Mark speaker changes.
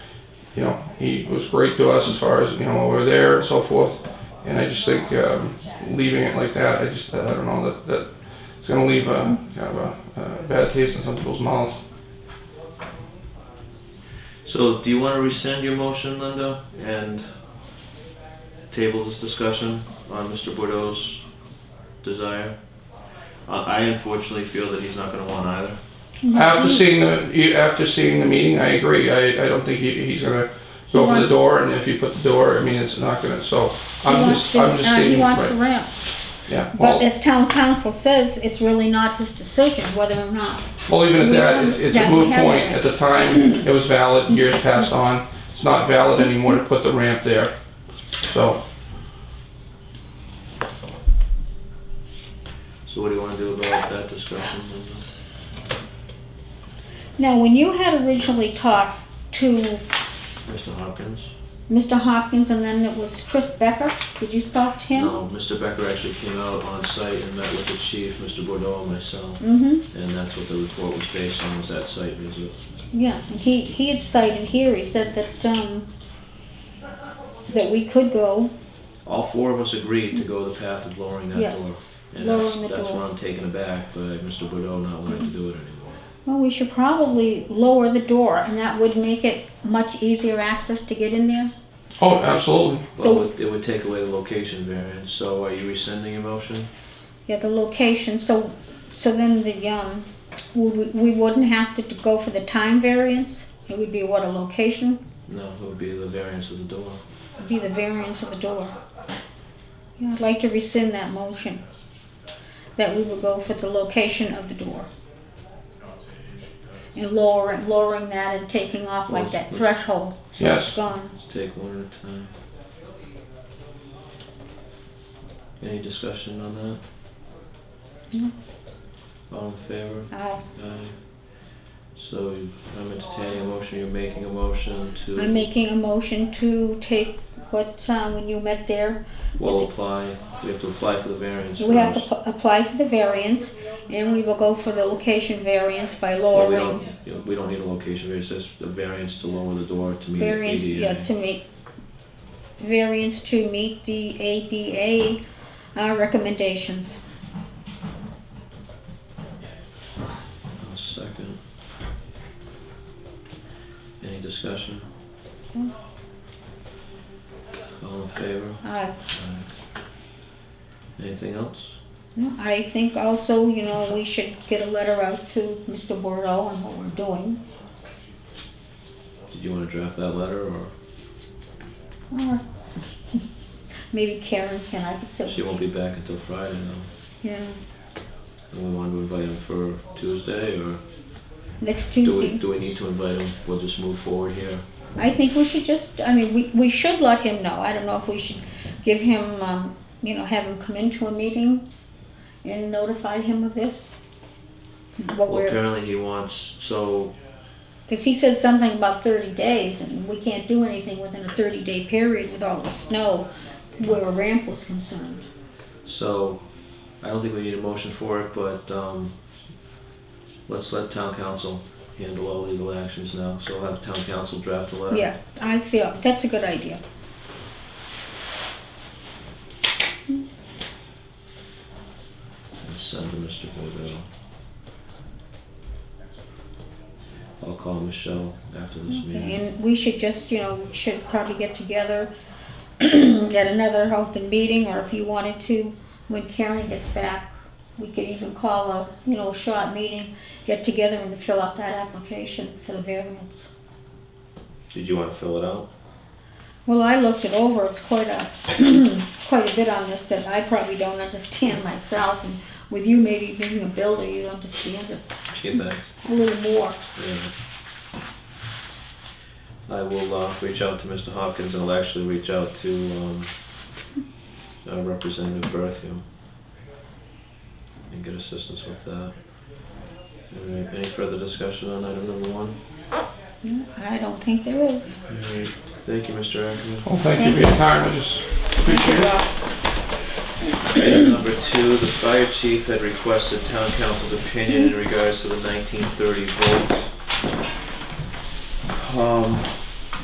Speaker 1: you know, he was great to us as far as, you know, over there and so forth. And I just think um, leaving it like that, I just, I don't know, that, that it's going to leave a, kind of a, a bad taste in some people's mouths.
Speaker 2: So do you want to rescind your motion, Linda, and table this discussion on Mr. Bordeaux's desire? I I unfortunately feel that he's not going to want either.
Speaker 3: Mm-hmm.
Speaker 1: After seeing the after seeing the meeting, I agree. I, I don't think he, he's gonna go for the
Speaker 3: wants-
Speaker 1: door, and if you put the door, I mean it's not gonna. So
Speaker 3: He
Speaker 1: I'm
Speaker 3: wants
Speaker 1: just
Speaker 3: the-
Speaker 1: I'm just
Speaker 3: uh,
Speaker 1: stating
Speaker 3: He wants the
Speaker 1: right.
Speaker 3: ramp,
Speaker 1: Yeah.
Speaker 3: but
Speaker 1: Well,
Speaker 3: as town council says, it's really not his decision whether or not.
Speaker 1: well, even at
Speaker 3: we
Speaker 1: that,
Speaker 3: haven't-
Speaker 1: it's, it's a
Speaker 3: that we
Speaker 1: moot
Speaker 3: haven't-
Speaker 1: point. At the time, it was valid. Years passed on. It's not valid anymore to put the ramp there. So
Speaker 2: So what do you want to do about that discussion, Linda?
Speaker 3: Now, when you had originally talked to
Speaker 2: Mr. Hopkins?
Speaker 3: Mr. Hopkins and then it was Chris Becker, did you talk to him?
Speaker 2: No, Mr. Um, Becker actually came out on site and met with the chief, Mr. Bordeaux, and myself,
Speaker 3: Mm-hmm,
Speaker 2: and that's what the report was based on, was that site visit.
Speaker 3: yeah, and he, he had cited here, he said that, um, that we could go,
Speaker 2: All four of us agreed to go the path of lowering
Speaker 3: Yeah,
Speaker 2: that door. And that's,
Speaker 3: lowering the
Speaker 2: that's
Speaker 3: door.
Speaker 2: where I'm taken aback by Mr. Bordeaux not wanting to do it anymore.
Speaker 3: well, we should probably lower the door and that would make it much easier access to get in there.
Speaker 1: oh, absolutely.
Speaker 2: Well, it
Speaker 3: So-
Speaker 2: would- it would take away the location variance, so are you rescinding your motion?
Speaker 3: Yeah, the location, so, so then the, um, we, we wouldn't have to go for the time variance? It would be what, a location,
Speaker 2: No, it would be the variance of the door.
Speaker 3: It'd be the variance of the door. Yeah, I'd like to rescind that motion, that we would go for the location of the door. And lowering, lowering that and taking off like that threshold, it's
Speaker 1: Yes.
Speaker 3: gone.
Speaker 2: Let's take one at a time. Any discussion on that?
Speaker 3: No.
Speaker 2: All in favor?
Speaker 3: I,
Speaker 2: Aye. So you- I'm entertaining a motion, you're making a motion
Speaker 3: I'm
Speaker 2: to,
Speaker 3: making a motion to take what, um, when you met there,
Speaker 2: well, apply, we have to apply for the variance
Speaker 3: We have to
Speaker 2: first.
Speaker 3: p- apply for the variance, and we will go for the location variance by
Speaker 2: Well, we
Speaker 3: lowering
Speaker 2: don't- you know, We don't need a location variance, that's the variance to lower the door to meet
Speaker 3: variance, yeah,
Speaker 2: ADA.
Speaker 3: to meet, variance to meet the ADA uh, recommendations.
Speaker 2: I'll second. Any discussion?
Speaker 3: No.
Speaker 2: All in favor?
Speaker 3: Uh,
Speaker 2: Anything else?
Speaker 3: no, I think also, you know, we should get a letter out to Mr. Bordeaux on what we're doing,
Speaker 2: Did you want to draft that letter or
Speaker 3: or maybe Karen can, I could
Speaker 2: she
Speaker 3: say,
Speaker 2: won't be back until Friday now?
Speaker 3: yeah,
Speaker 2: And we want to invite him for Tuesday or
Speaker 3: next
Speaker 2: do we,
Speaker 3: Tuesday.
Speaker 2: do we need to invite him? We'll just move forward here.
Speaker 3: I think we should just, I mean, we, we should let him know. I don't know if we should give him, um, you know, have him come into a meeting and notify him of this. What
Speaker 2: Well,
Speaker 3: we're,
Speaker 2: apparently he wants, so,
Speaker 3: because he said something about thirty days and we can't do anything within a thirty day period with all the snow where a ramp was concerned.
Speaker 2: so I don't think we need a motion for it, but, um, let's let town council handle all legal actions now. So we'll have town council draft a letter.
Speaker 3: Yeah, I feel, that's a good idea.
Speaker 2: And send to Mr. Bordeaux. I'll call Michelle after this meeting.
Speaker 3: And we should just, you know, should probably get together at another open meeting, or if you wanted to, when Karen gets back, we could even call a, you know, short meeting, get together and fill out that application for the variance.
Speaker 2: Did you want to fill it out?
Speaker 3: Well, I looked it over, it's quite a, quite a bit on this that I probably don't understand myself, and with you maybe being a builder, you don't understand it
Speaker 2: Gee, thanks.
Speaker 3: a little more.
Speaker 2: Yeah. I will uh, reach out to Mr. Hopkins. I'll actually reach out to um, uh, Representative Bertheum and get assistance with that. All right, any further discussion on item number one?
Speaker 3: I don't think there is.
Speaker 2: All right. Thank you, Mr. Ackerman.
Speaker 1: Well, thank you for your time. I just appreciate it.
Speaker 2: Item number two, the fire chief had requested town council's opinion in regards to the nineteen thirty vote. Um,